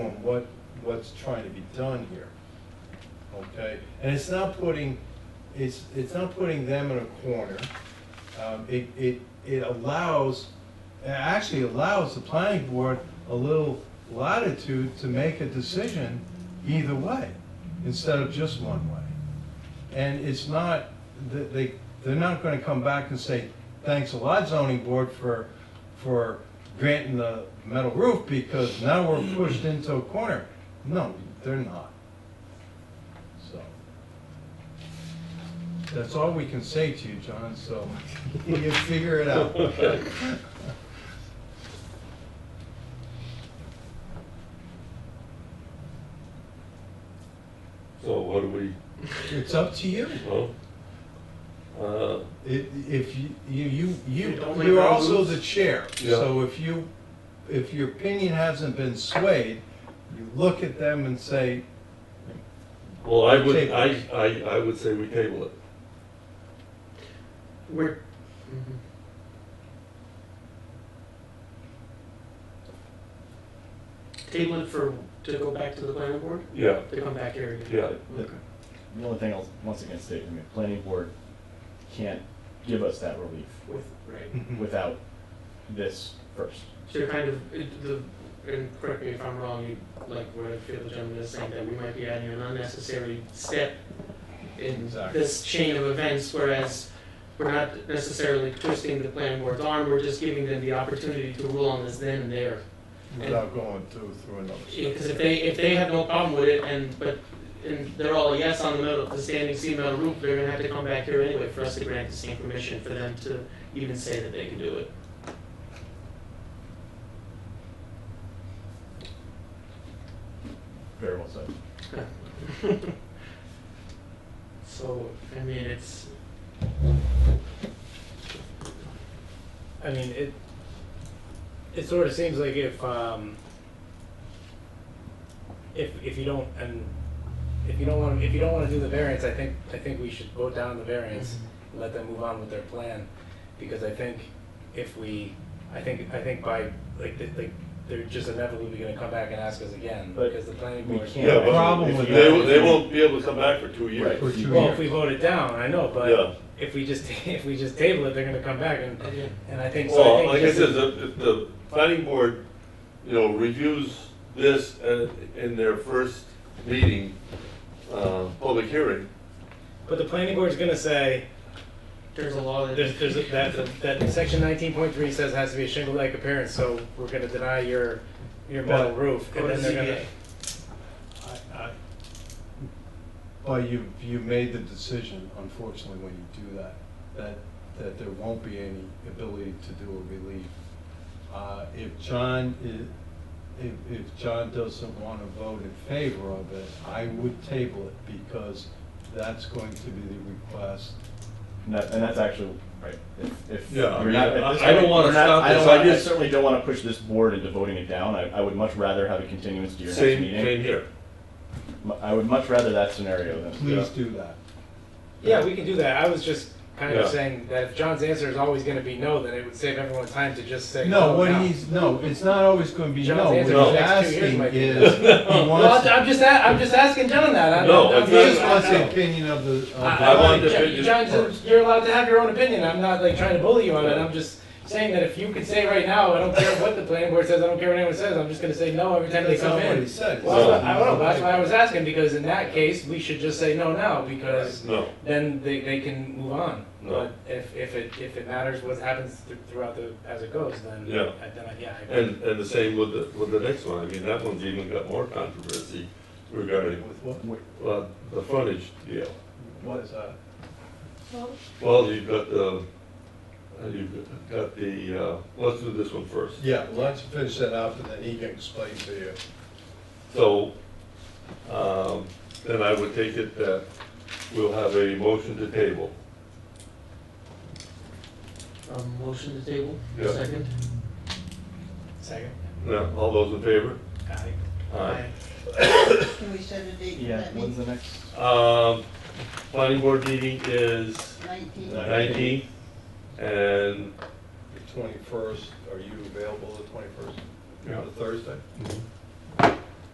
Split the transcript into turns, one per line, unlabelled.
what, what's trying to be done here. Okay, and it's not putting, it's, it's not putting them in a corner. Um, it, it, it allows, it actually allows the planning board a little latitude to make a decision either way, instead of just one way. And it's not, th- they, they're not gonna come back and say, thanks a lot zoning board for, for granting the metal roof because now we're pushed into a corner. No, they're not. So. That's all we can say to you, John, so you figure it out.
Okay. So what do we,
It's up to you.
well, uh,
It, if you, you, you, you-
You don't make
you're
our
also
rules?
the chair,
Yeah.
so if you, if your opinion hasn't been swayed, you look at them and say,
well, I would,
Table.
I, I, I would say we table it.
We're, table it for, to go back to the planning board,
Yeah,
to come back here again?
yeah,
Okay.
The only thing I'll once again state, I mean, planning board can't give us that relief
With,
"Hmm,"
right,
Mm-hmm.
without this first.
so you're kind of, it- the, and correct me if I'm wrong, you, like, what I feel the gentleman is saying, that we might be adding an unnecessary step in
Exactly.
this chain of events, whereas we're not necessarily twisting the planning board's arm, we're just giving them the opportunity to rule on this then and there.
without going through, through another.
Because if they, if they have no problem with it and, but, and they're all yes on the metal, the standing seam metal roof, they're gonna have to come back here anyway for us to grant the same permission for them to even say that they can do it.
Very well said.
So, I mean, it's,
I mean, it, it sort of seems like if, um, if, if you don't, and if you don't want, if you don't want to do the variance, I think, I think we should vote down the variance, and let them move on with their plan, because I think if we, I think, I think by, like, th- like, they're just inevitably gonna come back and ask us again,
But
because the planning
we
board.
can't.
yeah,
problem
but
with
they,
that-
they won't be able to come back for two years.
Right.
For two
Well,
years.
if we vote it down, I know,
Yeah.
but if we just, if we just table it, they're gonna come back and, and I think, so I
Well,
think
like I
just-
said, the, if the planning board, you know, reviews this uh, in their first meeting, uh, public hearing,
But the planning board's gonna say,
there's a law that.
there's, there's, a- that, that section nineteen point three says has to be a shingle-like appearance, so we're gonna deny your, your metal roof,
Go
and
to
then they're
ZBA.
gonna.
I- I- But you, you made the decision, unfortunately, when you do that, that, that there won't be any ability to do a relief. Uh, If John i- if, if John doesn't want to vote in favor of it, I would table it because that's going to be the request.
And that, and that's actually, right, if, if.
Yeah, I
we're
mean,
not at
I-
this
I don't
point-
wanna
we're not-
stop
I don't
this, I
wanna- I
just-
certainly don't wanna push this board into voting it down, I, I would much rather have a continuance to your next
same,
meeting.
same here.
M- I would much rather that scenario than.
Please do that.
Yeah, we can do that, I was just kind
Yeah.
of saying that if John's answer is always gonna be no, then it would save everyone time to just say.
No, what
now."
he's, no, it's not always going to be no.
John's
What he's
answer
for the
next two years
asking
might be
is, he
Oh, Well,
wants,
I'm- I'm just, a- I'm just asking John that, I'm.
No,
I'm-
it's
he
not-
just wants the
I-
opinion of the. of the-
I-
I want the
John-
opinion
John,
first.
you're allowed to have your own opinion, I'm not like trying to bully you on it, I'm just saying that if you could say right now, I don't care what the planning board says, I don't care what anyone says, I'm just gonna say no every time they
That's
come
not what he
in.
said.
Well, that's what- I don't know, but that's why I was asking, because in that case, we should just say no now, because
No,
then they, they can move on.
No.
But if, if it, if it matters what happens th- throughout the, as it goes, then,
Yeah.
I- then, I- yeah, I agree.
and, and the same with the, with the next one, I mean, that one's even got more controversy regarding,
With what?
uh, the frontage deal.
What is that?
Well, you've got the, uh, you've got the, uh, let's do this one first.
Yeah, let's finish that up and then he can explain to you.
So, um, then I would take it that we'll have a motion to table.
Um, motion to table,
Yeah.
second.
Second.
Now, all those in favor?
Aye.
Can we set a date for
Yeah,
that
when's
meeting?
the next?
Um, planning board meeting is
Nineteen?
Nice.
nineteenth, and
The twenty-first, are you available the twenty-first?
Yeah.
The Thursday?